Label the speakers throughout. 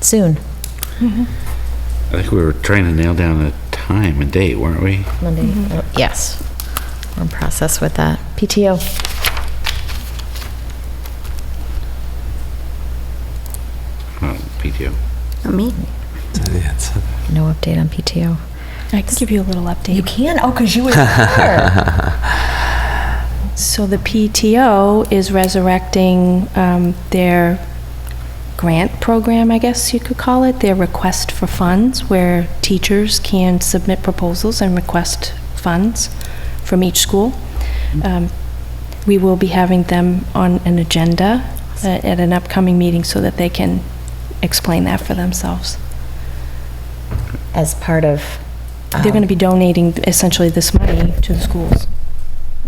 Speaker 1: soon,
Speaker 2: I think we were trying to nail down a time and date, weren't we?
Speaker 1: Monday. Oh, Yes. We're in process with that. PTO.
Speaker 2: Oh, PTO.
Speaker 3: Not me.
Speaker 1: No update on PTO.
Speaker 4: I can give you a little update.
Speaker 1: can? Oh, because you were there.
Speaker 4: So the PTO is resurrecting um, their grant program, I guess you could call it, their request for funds, where teachers can submit proposals and request funds from each school. Um, We will be having them on an agenda uh, at an upcoming meeting so that they can explain that for themselves.
Speaker 1: As part of.
Speaker 4: They're going to be donating essentially this money to the schools.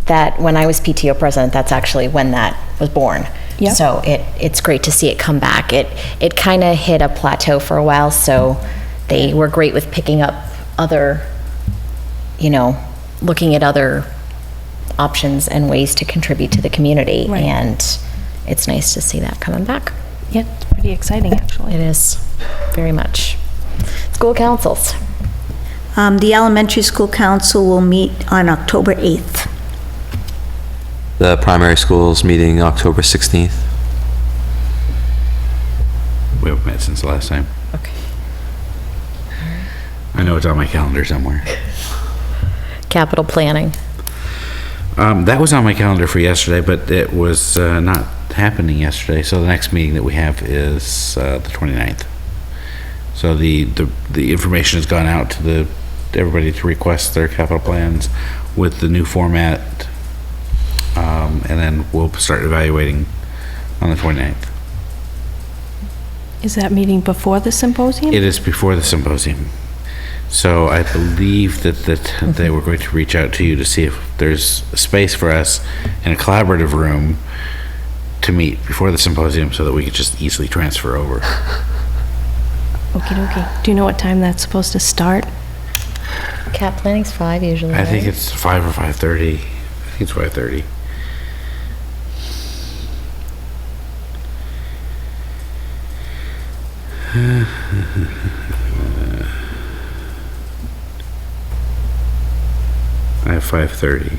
Speaker 1: that when I was PTO president, that's actually when that was born.
Speaker 4: Yep.
Speaker 1: So it, it's great to see it come back. It, it kind of hit a plateau for a while, so they were great with picking up other, you know, looking at other options and ways to contribute to the community.
Speaker 4: Right.
Speaker 1: And it's nice to see that coming back.
Speaker 4: Yeah, it's pretty exciting, actually.
Speaker 1: It is, very much. School councils.
Speaker 3: Um, The elementary school council will meet on October 8th.
Speaker 5: The primary schools meeting October 16th.
Speaker 2: We haven't met since the last time.
Speaker 1: Okay.
Speaker 2: I know it's on my calendar somewhere.
Speaker 1: Capital planning.
Speaker 2: Um, that was on my calendar for yesterday, but it was uh, not happening yesterday. So the next meeting that we have is uh, the 29th. So the, the, the information has gone out to the, everybody to request their capital plans with the new format. Um, and then we'll start evaluating on the 29th.
Speaker 4: Is that meeting before the symposium?
Speaker 2: It is before the symposium. So I believe that, that they were going to reach out to you to see if there's space for us in a collaborative room to meet before the symposium so that we could just easily transfer over.
Speaker 4: Okie dokie. Do you know what time that's supposed to start?
Speaker 1: Cap planning's five usually,
Speaker 2: I think
Speaker 1: right?
Speaker 2: it's five or five thirty. I think it's five thirty. I have five thirty.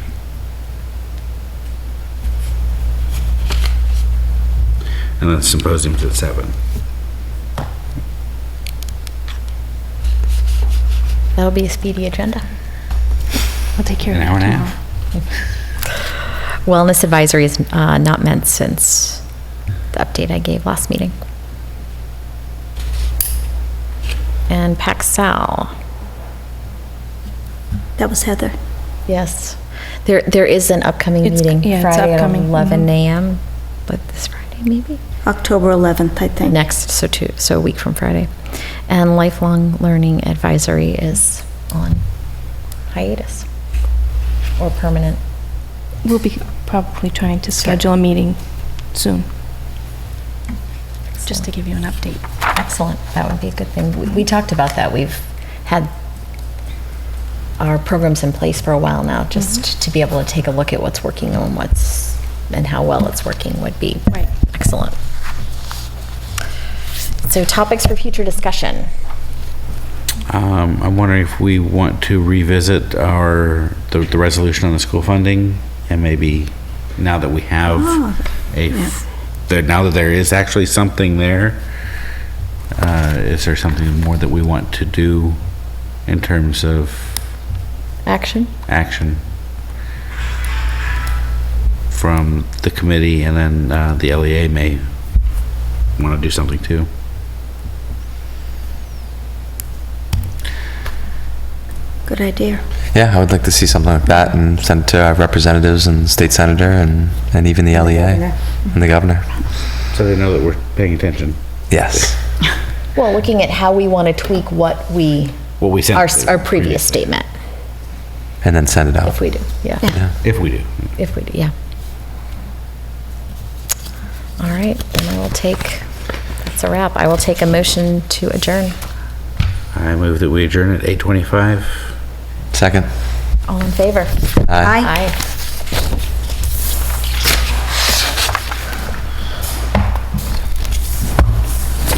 Speaker 2: And then symposium's at seven.
Speaker 1: That'll be a speedy agenda.
Speaker 4: I'll take care of
Speaker 2: An
Speaker 4: it
Speaker 2: hour and a
Speaker 4: tomorrow.
Speaker 2: half.
Speaker 1: Wellness advisory is uh, not meant since the update I gave last meeting. And Paxal,
Speaker 3: That was Heather.
Speaker 1: yes. There, there is an upcoming
Speaker 4: It's-
Speaker 1: meeting
Speaker 4: yeah, it's
Speaker 1: Friday at
Speaker 4: upcoming,
Speaker 1: 11
Speaker 4: mhm.
Speaker 1: a.m., but this Friday maybe?
Speaker 3: October 11th, I think.
Speaker 1: Next, so two, so a week from Friday. And lifelong learning advisory is on hiatus or permanent.
Speaker 4: We'll be probably trying to schedule a meeting soon, just to give you an update.
Speaker 1: Excellent, that would be a good thing. We- We talked about that, we've had our programs in place for a while now, just to be able to take a look at what's working and what's, and how well it's working would be
Speaker 4: Right.
Speaker 1: excellent. So topics for future discussion.
Speaker 2: Um, I'm wondering if we want to revisit our, the, the resolution on the school funding and maybe now that we have
Speaker 3: Ah, Oh,
Speaker 2: a, that now that there is actually something there, uh, is there something more that we want to do in terms of
Speaker 1: Action?
Speaker 2: action from the committee and then, uh, the LEA may want to do something too.
Speaker 3: Good idea.
Speaker 5: Yeah, I would like to see something like that and send it to our representatives and state senator and, and even the LEA and the governor.
Speaker 2: So they know that we're paying attention.
Speaker 5: Yes.
Speaker 1: Well, looking at how we want to tweak what we,
Speaker 2: What we sent.
Speaker 1: our, s- our previous statement,
Speaker 5: And then send it out.
Speaker 1: if
Speaker 2: Oh.
Speaker 1: we do, yeah.
Speaker 2: If we do.
Speaker 1: If we do, yeah. All right, then I will take, that's a wrap. I will take a motion to adjourn.
Speaker 2: I move that we adjourn at 8:25.
Speaker 5: Second.
Speaker 1: All in favor?
Speaker 3: Aye.
Speaker 1: Aye.